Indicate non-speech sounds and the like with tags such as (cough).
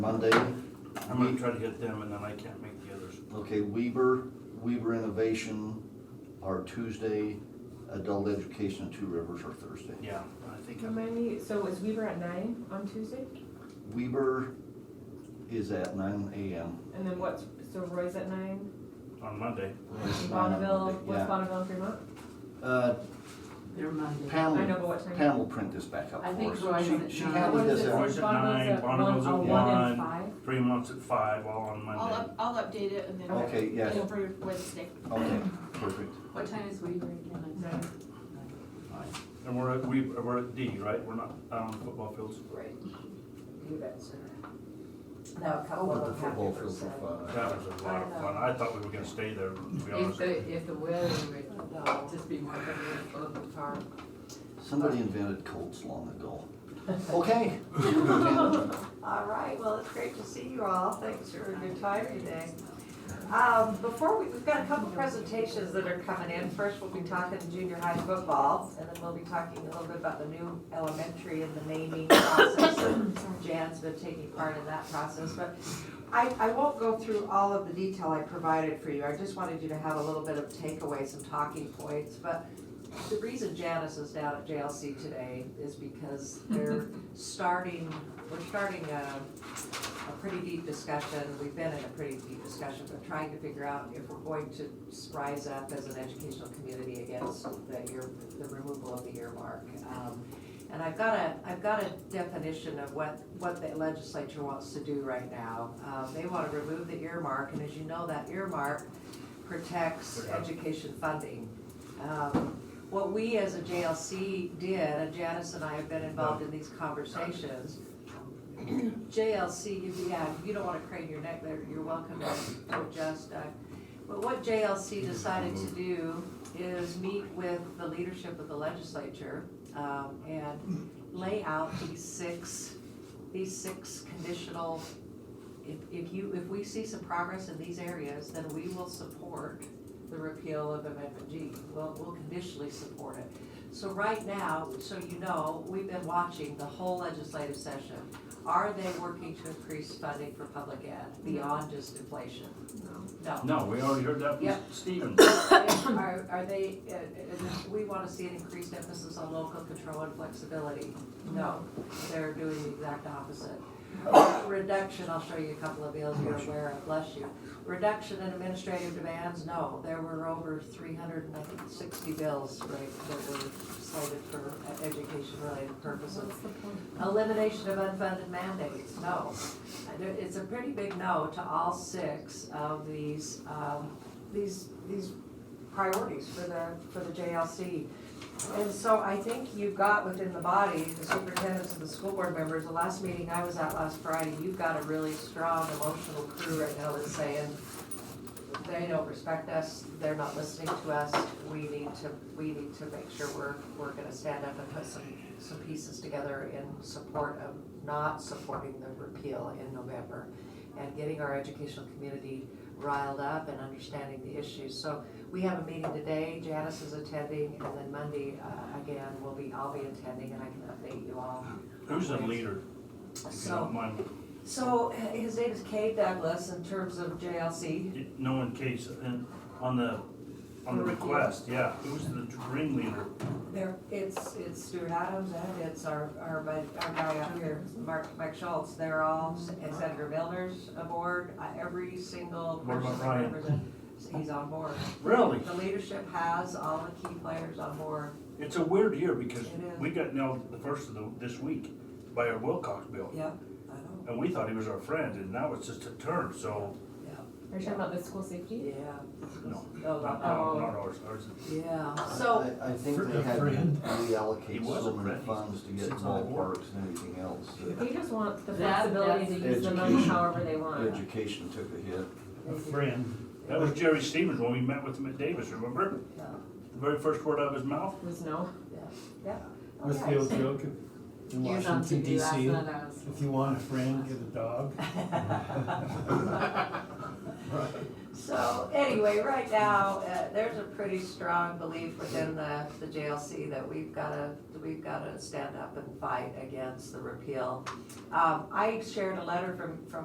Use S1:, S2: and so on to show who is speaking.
S1: Monday.
S2: I'm gonna try to hit them and then I can't make the others.
S1: Okay, Weber, Weber Innovation are Tuesday, Adult Education and Two Rivers are Thursday.
S2: Yeah, I think I'm,
S3: Remind me, so is Weaver at nine on Tuesday?
S1: Weber is at nine AM.
S3: And then what's, so Roy's at nine?
S2: on Monday.
S1: It's nine on
S3: Bonneville,
S1: Monday,
S3: what's
S1: yeah.
S3: Bonneville and Fremont?
S1: Uh,
S4: They're Monday.
S3: I know,
S1: Pam,
S3: but what time?
S1: Pam will print this back up
S4: I
S1: for
S4: think
S1: us.
S4: Roy
S1: She-
S4: was at
S1: She
S4: nine.
S1: handed
S3: What is
S1: this
S3: it?
S1: out.
S2: Roy's
S3: Roy's
S2: at
S3: Bonneville's
S2: nine,
S3: at
S2: Bonneville's
S3: one-
S2: at
S3: oh, one
S2: one.
S3: and five?
S2: Fremont's at five, all on
S5: I'll,
S2: Monday.
S5: up- I'll update it and then.
S1: Okay, yes.
S5: It'll be Wednesday.
S1: Okay, perfect.
S4: What time is Weaver again?
S3: Nine.
S2: And we're at, we, we're at D, right? We're not down on the football fields.
S5: Right.
S6: You bet, sir. Now, a couple
S1: Oh, But the
S6: of them have
S1: football
S6: to be
S1: fields
S6: said.
S1: are fun.
S2: That was a lot of fun. I thought we were gonna stay there, to be
S4: If
S2: honest.
S4: the, if the weather would, uh, just be more favorable for the park.
S1: Somebody invented Colts long ago. Okay.
S6: All right, well, it's great to see you all. Thanks for your time today. Um, before we, we've got a couple presentations that are coming in. First, we'll be talking junior high football, and then we'll be talking a little bit about the new elementary and the naming (coughs) process. and Jan's been taking part in that process, but I, I won't go through all of the detail I provided for you. I just wanted you to have a little bit of takeaway, some talking points, but the reason Janice is down at JLC today is because they're starting, we're starting a a pretty deep discussion, we've been in a pretty deep discussion, but trying to figure out if we're going to rise up as an educational community against the ear, the removal of the earmark. Um, And I've got a, I've got a definition of what, what the legislature wants to do right now. Um, They want to remove the earmark, and as you know, that earmark protects
S2: Yeah.
S6: education funding. Um, What we as a JLC did, and Janice and I have been involved in these conversations, JLC, if- yeah, you don't wanna crane your neck there, you're welcome to adjust, Doug. But what JLC decided to do is meet with the leadership of the legislature, um, and lay out these six, these six conditional, if, if you, if we see some progress in these areas, then we will support the repeal of Amendment G. We'll, we'll conditionally support it. So right now, so you know, we've been watching the whole legislative session. Are they working to increase funding for public ed beyond just inflation? No.
S2: No, we already heard that
S6: Yeah.
S2: from Stephen.
S6: Are, are they, uh, uh, we want to see an increased emphasis on local control and flexibility. No, they're doing the exact opposite. Reduction, I'll show you a couple of bills you're aware of, bless you. Reduction in administrative demands, no, there were over three hundred and I think sixty bills, right, that were slated for e-, education-related purposes.
S3: What's the point?
S6: Elimination of unfunded mandates, no. Uh, there- It's a pretty big no to all six of these, um, these, these priorities for the, for the JLC. And so I think you got within the body, the superintendents and the school board members, the last meeting I was at last Friday, you've got a really strong emotional crew right now that's saying, they don't respect us, they're not listening to us, we need to, we need to make sure we're, we're gonna stand up and put some, some pieces together in support of not supporting the repeal in November and getting our educational community riled up and understanding the issues. So we have a meeting today, Janice is attending, and then Monday, uh, again, will be, I'll be attending and I can update you all.
S2: Who's the leader? if you
S6: So-
S2: don't mind?
S6: So uh, his name is Kay Douglas in terms of JLC.
S2: No, in case, and on the, on the request, yeah, who's the ringleader?
S6: There, it's, it's Stuart Adams and it's our, our, bud- our guy up here, Mark, Mike Schultz, they're all, and Senator Milner's aboard, uh, every single
S2: What about
S6: person that
S2: Ryan?
S6: represents, he's on board.
S2: Really?
S6: The leadership has all the key players on board,
S2: It's a weird year because
S6: It is.
S2: we got nailed the first of the, this week by our Wilcox bill.
S6: yep, I know,
S2: And we thought he was our friend and now it's just a turn, so,
S6: yeah,
S3: Are you talking about the school safety?
S6: yeah,
S2: no,
S6: oh,
S2: not, not,
S6: oh,
S2: not ours, ours is
S6: yeah,
S1: I-
S6: so,
S1: I- I think
S7: For-
S1: they
S7: a
S1: had
S7: friend.
S2: He
S1: reallocate
S2: was a
S1: so many
S2: friend.
S1: funds to get
S2: Sits on the board.
S1: ballparks and everything else. that
S3: They just want the
S4: That-
S3: flexibility to use the money
S1: Education.
S3: however they want.
S1: Education took a hit.
S7: A friend.
S2: That was Jerry Stevens when we met with him at Davis, remember?
S6: yeah,
S2: The very first word out of his mouth?
S3: Was no,
S6: yeah.
S7: What's the old joke in- in
S4: You're not to
S7: Washington
S4: do that,
S7: DC?
S4: not us.
S7: If you want a friend, get a dog.
S6: (laughs) So anyway, right now, uh, there's a pretty strong belief within the, the JLC that we've gotta, we've gotta stand up and fight against the repeal. Um, I shared a letter from, from